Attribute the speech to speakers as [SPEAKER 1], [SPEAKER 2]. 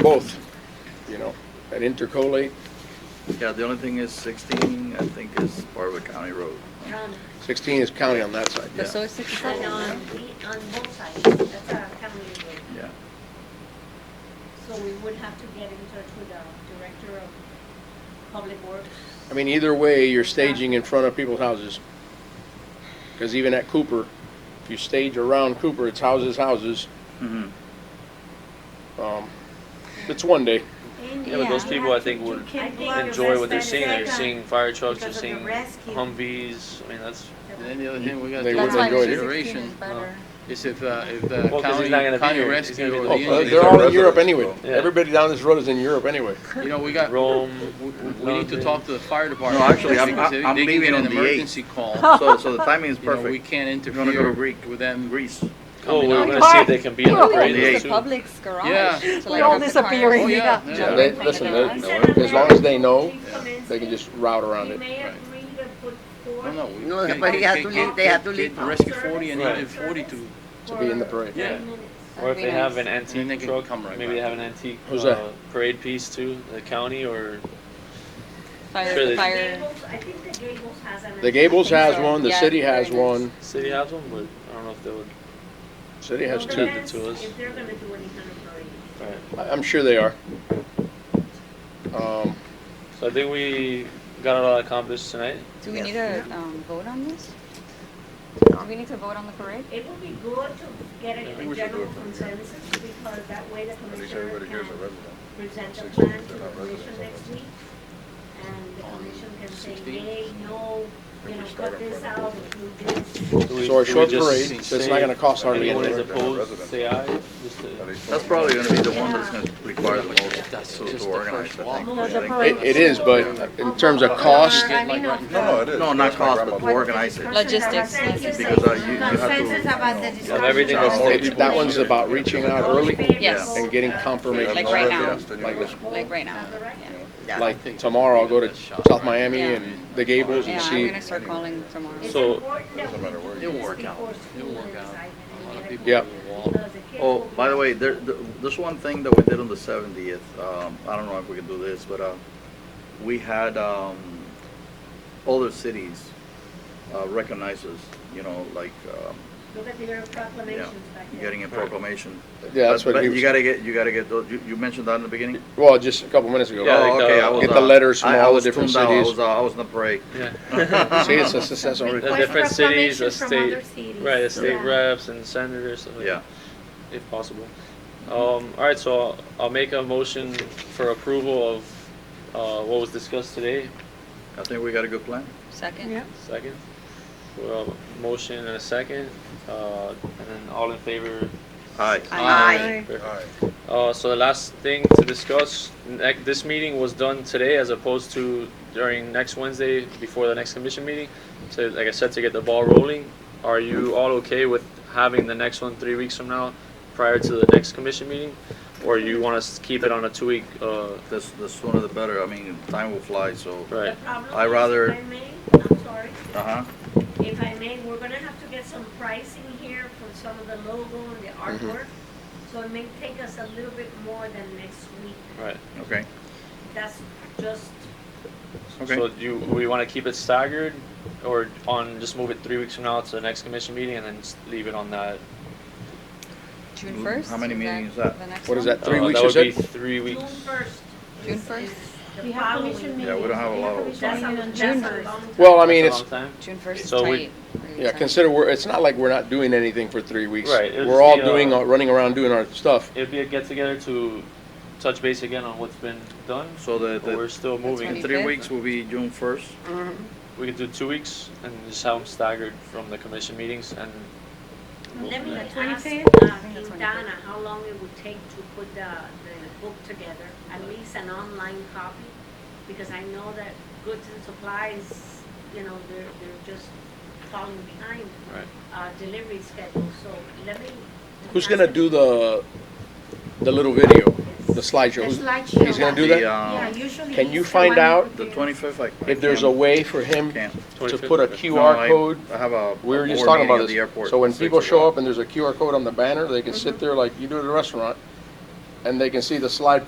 [SPEAKER 1] both, you know, at Intercolate,
[SPEAKER 2] Yeah, the only thing is 16, I think, is Barwood County Road.
[SPEAKER 3] Um,
[SPEAKER 1] 16 is county on that side.
[SPEAKER 2] Yeah.
[SPEAKER 4] So it's six
[SPEAKER 3] And
[SPEAKER 4] and
[SPEAKER 3] on, the- on both sides, that's our county road.
[SPEAKER 2] Yeah.
[SPEAKER 3] So we would have to get in touch with the director of public works.
[SPEAKER 1] I mean, either way, you're staging in front of people's houses. Because even at Cooper, if you stage around Cooper, it's houses, houses.
[SPEAKER 2] Mhm.
[SPEAKER 1] Um, It's one day.
[SPEAKER 5] Yeah, but those people, I think, would enjoy what they're seeing. They're seeing fire trucks, they're
[SPEAKER 3] because of the
[SPEAKER 5] seeing
[SPEAKER 3] rescue.
[SPEAKER 5] Humvees. I mean, that's,
[SPEAKER 2] And then the other thing we got
[SPEAKER 1] They
[SPEAKER 2] to
[SPEAKER 1] wouldn't
[SPEAKER 4] That's why
[SPEAKER 2] take
[SPEAKER 1] enjoy
[SPEAKER 4] the
[SPEAKER 1] it.
[SPEAKER 2] into
[SPEAKER 4] 16 is
[SPEAKER 2] consideration
[SPEAKER 4] better.
[SPEAKER 2] is if, uh, if the
[SPEAKER 5] Well, 'cause
[SPEAKER 2] county,
[SPEAKER 5] he's not gonna be
[SPEAKER 2] county
[SPEAKER 5] here. He's
[SPEAKER 2] rescue
[SPEAKER 5] gonna
[SPEAKER 2] or
[SPEAKER 5] be
[SPEAKER 2] the
[SPEAKER 5] there.
[SPEAKER 1] Oh, uh,
[SPEAKER 2] Indians.
[SPEAKER 1] They're all in Europe anyway.
[SPEAKER 5] Yeah.
[SPEAKER 1] Everybody down this road is in Europe anyway.
[SPEAKER 6] Oh,
[SPEAKER 2] You know, we got,
[SPEAKER 5] Rome,
[SPEAKER 2] we- we need to
[SPEAKER 5] London.
[SPEAKER 2] talk to the fire department.
[SPEAKER 6] No, actually, I'm-
[SPEAKER 2] because if
[SPEAKER 6] I'm
[SPEAKER 2] they can
[SPEAKER 6] leaving
[SPEAKER 2] get
[SPEAKER 6] on
[SPEAKER 2] an
[SPEAKER 6] the eighth.
[SPEAKER 2] Emergency call,
[SPEAKER 6] So, so the timing is
[SPEAKER 2] you know, we
[SPEAKER 6] perfect.
[SPEAKER 2] can't
[SPEAKER 6] gonna go to
[SPEAKER 2] interfere with them.
[SPEAKER 6] Greece.
[SPEAKER 5] oh,
[SPEAKER 2] Coming
[SPEAKER 5] we're
[SPEAKER 2] out.
[SPEAKER 5] gonna see if they can be in the
[SPEAKER 6] Oh,
[SPEAKER 4] Well,
[SPEAKER 6] yeah.
[SPEAKER 4] it's
[SPEAKER 5] parade
[SPEAKER 4] the
[SPEAKER 5] too.
[SPEAKER 4] public's garage.
[SPEAKER 2] Yeah.
[SPEAKER 4] so
[SPEAKER 3] We're
[SPEAKER 4] like
[SPEAKER 3] all
[SPEAKER 4] the cars-
[SPEAKER 7] disappearing.
[SPEAKER 2] Oh, yeah.
[SPEAKER 7] Yeah.
[SPEAKER 2] yeah.
[SPEAKER 1] They- listen, they- as long as they know, they can just route around
[SPEAKER 3] We
[SPEAKER 1] it.
[SPEAKER 3] may
[SPEAKER 2] Right.
[SPEAKER 3] agree to put
[SPEAKER 2] I
[SPEAKER 3] forth.
[SPEAKER 2] don't know. we-
[SPEAKER 6] No,
[SPEAKER 2] get-
[SPEAKER 6] but you
[SPEAKER 2] get-
[SPEAKER 6] have to
[SPEAKER 2] get-
[SPEAKER 6] leave- they have to
[SPEAKER 2] get-
[SPEAKER 6] leave
[SPEAKER 2] get
[SPEAKER 6] now.
[SPEAKER 2] Rescue 40 and
[SPEAKER 5] Right.
[SPEAKER 2] even 42.
[SPEAKER 1] To be in the parade.
[SPEAKER 2] Yeah.
[SPEAKER 4] That'd
[SPEAKER 5] Or if
[SPEAKER 4] be
[SPEAKER 5] they have
[SPEAKER 4] nice.
[SPEAKER 5] an
[SPEAKER 2] And they
[SPEAKER 5] antique
[SPEAKER 2] can
[SPEAKER 5] truck,
[SPEAKER 2] come right
[SPEAKER 5] maybe they
[SPEAKER 2] back.
[SPEAKER 5] have an antique
[SPEAKER 1] Who's
[SPEAKER 5] uh,
[SPEAKER 1] that?
[SPEAKER 5] parade piece too, the county or, Sure,
[SPEAKER 4] Fire,
[SPEAKER 5] they-
[SPEAKER 4] fire.
[SPEAKER 3] Gables- I think the Gables has an.
[SPEAKER 1] The Gables
[SPEAKER 4] I think
[SPEAKER 1] has
[SPEAKER 4] so.
[SPEAKER 1] one, the
[SPEAKER 4] Yeah,
[SPEAKER 1] city has
[SPEAKER 4] very nice.
[SPEAKER 1] one,
[SPEAKER 5] city has one, but I don't know if they would,
[SPEAKER 1] city has
[SPEAKER 3] Well,
[SPEAKER 1] two.
[SPEAKER 5] the
[SPEAKER 3] depends
[SPEAKER 5] two is-
[SPEAKER 3] If they're gonna do any kind of parade.
[SPEAKER 5] alright.
[SPEAKER 1] I- I'm sure they are. Um,
[SPEAKER 5] So I think we got a lot accomplished tonight.
[SPEAKER 4] Do we
[SPEAKER 6] Yes.
[SPEAKER 4] need to um, vote on this? Do we need to vote on the parade?
[SPEAKER 3] It would be good to get
[SPEAKER 2] I
[SPEAKER 3] a
[SPEAKER 2] think we
[SPEAKER 3] a
[SPEAKER 2] should do
[SPEAKER 3] general
[SPEAKER 2] it from here.
[SPEAKER 3] consensus because that way the
[SPEAKER 6] At least
[SPEAKER 3] commissioner
[SPEAKER 6] everybody
[SPEAKER 3] can
[SPEAKER 6] here's a resident.
[SPEAKER 3] present the
[SPEAKER 6] Six,
[SPEAKER 3] plan to
[SPEAKER 6] they're
[SPEAKER 3] the
[SPEAKER 6] not
[SPEAKER 3] commission
[SPEAKER 6] residents,
[SPEAKER 3] next week. And the commission can say,
[SPEAKER 2] 16.
[SPEAKER 3] yay, no,
[SPEAKER 6] If
[SPEAKER 3] you
[SPEAKER 6] we
[SPEAKER 3] know,
[SPEAKER 6] start
[SPEAKER 3] cut
[SPEAKER 6] on
[SPEAKER 3] this
[SPEAKER 6] Friday.
[SPEAKER 3] out, do this.
[SPEAKER 5] Do we-
[SPEAKER 1] So a
[SPEAKER 5] do we
[SPEAKER 1] short
[SPEAKER 5] just
[SPEAKER 1] parade, so it's
[SPEAKER 5] say
[SPEAKER 1] not gonna cost hardly
[SPEAKER 5] Anyone is
[SPEAKER 1] anything.
[SPEAKER 5] opposed, say aye, just to.
[SPEAKER 6] That's
[SPEAKER 2] That's probably
[SPEAKER 6] probably
[SPEAKER 2] going to be the one that's going to require the most
[SPEAKER 5] That's
[SPEAKER 2] to-
[SPEAKER 5] just
[SPEAKER 2] to
[SPEAKER 5] the
[SPEAKER 2] organize,
[SPEAKER 5] first
[SPEAKER 2] I think.
[SPEAKER 3] walk.
[SPEAKER 2] I think-
[SPEAKER 5] uh,
[SPEAKER 1] It, it is, but in terms of cost,
[SPEAKER 4] I mean,
[SPEAKER 2] like,
[SPEAKER 4] of
[SPEAKER 6] No, no,
[SPEAKER 4] the-
[SPEAKER 6] it is.
[SPEAKER 2] No, not cost,
[SPEAKER 6] That's my
[SPEAKER 2] but
[SPEAKER 6] grandmother.
[SPEAKER 2] to organize it.
[SPEAKER 4] Logistics.
[SPEAKER 3] Consensus
[SPEAKER 2] Because, uh,
[SPEAKER 3] of-
[SPEAKER 2] you- you have to-
[SPEAKER 3] consensus about the discussion.
[SPEAKER 5] everything else
[SPEAKER 3] All
[SPEAKER 5] taken.
[SPEAKER 1] it's, that one's about reaching out
[SPEAKER 3] in
[SPEAKER 1] early
[SPEAKER 3] favor,
[SPEAKER 4] Yes.
[SPEAKER 3] vote,
[SPEAKER 1] and getting
[SPEAKER 3] uh,
[SPEAKER 1] confirmation.
[SPEAKER 4] Like right now.
[SPEAKER 6] Yes, then you
[SPEAKER 1] Like
[SPEAKER 6] go.
[SPEAKER 1] this.
[SPEAKER 4] Like right now.
[SPEAKER 3] Is that right?
[SPEAKER 1] Like tomorrow, I'll go to South Miami
[SPEAKER 4] Yeah.
[SPEAKER 1] and the Gables and
[SPEAKER 4] Yeah, I'm
[SPEAKER 1] see.
[SPEAKER 4] gonna start calling tomorrow.
[SPEAKER 3] It's
[SPEAKER 5] So-
[SPEAKER 3] important that
[SPEAKER 6] Doesn't
[SPEAKER 3] we
[SPEAKER 6] matter where
[SPEAKER 3] do
[SPEAKER 6] you-
[SPEAKER 2] It'll
[SPEAKER 3] this
[SPEAKER 2] work out.
[SPEAKER 3] before school
[SPEAKER 2] It'll work
[SPEAKER 3] ends,
[SPEAKER 2] out.
[SPEAKER 3] I
[SPEAKER 2] A lot of
[SPEAKER 3] think.
[SPEAKER 2] people
[SPEAKER 1] Yeah.
[SPEAKER 2] will walk.
[SPEAKER 3] Because the kids
[SPEAKER 2] Oh,
[SPEAKER 3] will be
[SPEAKER 2] by the way, there, th- this one thing that we did on the seventieth, um, I don't know if we can do this, but, uh, we had, um, other cities, uh, recognize us, you know, like, um,
[SPEAKER 3] Look at their proclamations back there.
[SPEAKER 2] getting a proclamation.
[SPEAKER 1] Yeah, that's
[SPEAKER 2] But-
[SPEAKER 1] what he
[SPEAKER 2] But
[SPEAKER 1] was,
[SPEAKER 2] you gotta get, you gotta get, those- you, you mentioned that in the beginning?
[SPEAKER 1] well, just a couple minutes ago.
[SPEAKER 5] Yeah,
[SPEAKER 2] Oh,
[SPEAKER 5] like,
[SPEAKER 2] okay,
[SPEAKER 5] uh,
[SPEAKER 2] I was,
[SPEAKER 1] Get the
[SPEAKER 2] uh,
[SPEAKER 1] letters from
[SPEAKER 2] I- I
[SPEAKER 1] all the
[SPEAKER 2] was
[SPEAKER 1] different
[SPEAKER 2] tuned out. I
[SPEAKER 1] cities.
[SPEAKER 2] was, uh, I was in the parade.
[SPEAKER 5] Yeah.
[SPEAKER 1] Oh, See, it's a success already.
[SPEAKER 5] The
[SPEAKER 3] Request
[SPEAKER 5] different cities, the
[SPEAKER 3] proclamations from other
[SPEAKER 5] state,
[SPEAKER 3] cities.
[SPEAKER 5] right, the state
[SPEAKER 3] Yeah.
[SPEAKER 5] reps and senators, stuff like
[SPEAKER 2] Yeah,
[SPEAKER 5] that, if possible. Um, all right, so I'll, I'll make a motion for approval of, uh, what was discussed today,
[SPEAKER 2] I think we got a good plan.
[SPEAKER 4] Second?
[SPEAKER 5] second. Well, motion and a second, uh, and then all in favor.
[SPEAKER 2] Aye.
[SPEAKER 4] Aye.
[SPEAKER 5] Perfect.
[SPEAKER 6] Aye.
[SPEAKER 5] Uh, so the last thing to discuss, nec- this meeting was done today as opposed to during next Wednesday before the next commission meeting. So like I said, to get the ball rolling, are you all okay with having the next one three weeks from now prior to the next commission meeting? Or you want us to keep it on a two-week, uh,
[SPEAKER 2] The, s- the sooner the better, I mean, time will fly, so,
[SPEAKER 3] The
[SPEAKER 5] right?
[SPEAKER 3] problem
[SPEAKER 2] I
[SPEAKER 3] is,
[SPEAKER 2] rather-
[SPEAKER 3] If I may, I'm sorry,
[SPEAKER 2] uh-huh.
[SPEAKER 3] if I may, we're gonna have to get some pricing here for some of the logo and the artwork. So it may take us a little bit more than next week.
[SPEAKER 5] Right.
[SPEAKER 2] Okay,
[SPEAKER 3] That's just,
[SPEAKER 5] So
[SPEAKER 2] okay.
[SPEAKER 5] do you, we want to keep it staggered or on, just move it three weeks from now to the next commission meeting and then just leave it on that?
[SPEAKER 4] June first?
[SPEAKER 2] How many meetings is that?
[SPEAKER 4] The next
[SPEAKER 1] What is
[SPEAKER 4] one?
[SPEAKER 1] that, three
[SPEAKER 5] Uh,
[SPEAKER 1] weeks,
[SPEAKER 5] That
[SPEAKER 1] you
[SPEAKER 5] would be
[SPEAKER 1] said?
[SPEAKER 5] three
[SPEAKER 3] June
[SPEAKER 5] weeks.
[SPEAKER 3] first.
[SPEAKER 4] June first?
[SPEAKER 3] We have commission
[SPEAKER 2] Yeah, we don't have a lot of.
[SPEAKER 3] That's a, that's
[SPEAKER 4] June
[SPEAKER 3] a
[SPEAKER 4] first.
[SPEAKER 3] long time.
[SPEAKER 1] Well, I
[SPEAKER 5] That's
[SPEAKER 1] mean,
[SPEAKER 5] a
[SPEAKER 1] it's,
[SPEAKER 5] long time.
[SPEAKER 4] June first is
[SPEAKER 5] So we-
[SPEAKER 4] tight. Really
[SPEAKER 1] yeah,
[SPEAKER 4] tight.
[SPEAKER 1] consider, we're, it's not like we're not doing anything for three weeks.
[SPEAKER 5] Right, it'll
[SPEAKER 1] We're all
[SPEAKER 5] just be, uh,
[SPEAKER 1] doing, our- running around doing our stuff.
[SPEAKER 5] It'd be a get together to touch base again on what's been done.
[SPEAKER 2] So the,
[SPEAKER 5] But we're
[SPEAKER 2] the,
[SPEAKER 5] still moving.
[SPEAKER 2] in three weeks will be June first.
[SPEAKER 5] We could do two weeks and just have them staggered from the commission meetings and. we'll-
[SPEAKER 3] Let me
[SPEAKER 5] yeah.
[SPEAKER 3] ask
[SPEAKER 4] I
[SPEAKER 3] uh,
[SPEAKER 4] think that's
[SPEAKER 3] Quintana how long it would take to put the, the book together, at least an online copy? Because I know that goods and supplies, you know, they're, they're just falling behind,
[SPEAKER 5] Right.
[SPEAKER 3] uh, delivery schedule, so let me.
[SPEAKER 1] Who's gonna do the, the little video, the
[SPEAKER 8] The
[SPEAKER 1] slideshow? Who's-
[SPEAKER 8] slideshow.
[SPEAKER 1] He's gonna do
[SPEAKER 2] The,
[SPEAKER 1] that?
[SPEAKER 8] Yeah,
[SPEAKER 2] um,
[SPEAKER 8] usually.
[SPEAKER 1] Can you
[SPEAKER 8] it's the
[SPEAKER 1] find
[SPEAKER 8] one
[SPEAKER 1] out
[SPEAKER 8] with
[SPEAKER 2] the
[SPEAKER 8] the-
[SPEAKER 2] twenty-fifth, I. I
[SPEAKER 1] If there's a
[SPEAKER 2] can't-
[SPEAKER 1] way for him
[SPEAKER 2] Can't.
[SPEAKER 1] to
[SPEAKER 5] 25th,
[SPEAKER 1] put a
[SPEAKER 5] okay.
[SPEAKER 2] No,
[SPEAKER 1] QR
[SPEAKER 2] I-
[SPEAKER 1] code,
[SPEAKER 2] I have a.
[SPEAKER 1] we were
[SPEAKER 2] a
[SPEAKER 1] just
[SPEAKER 2] board
[SPEAKER 1] talking
[SPEAKER 2] meeting
[SPEAKER 1] about
[SPEAKER 2] at the
[SPEAKER 1] this.
[SPEAKER 2] airport
[SPEAKER 1] So when
[SPEAKER 2] six
[SPEAKER 1] people show
[SPEAKER 2] o'clock.
[SPEAKER 1] up and there's a QR code on the banner, they can sit there like you do at a restaurant, and they can see the slide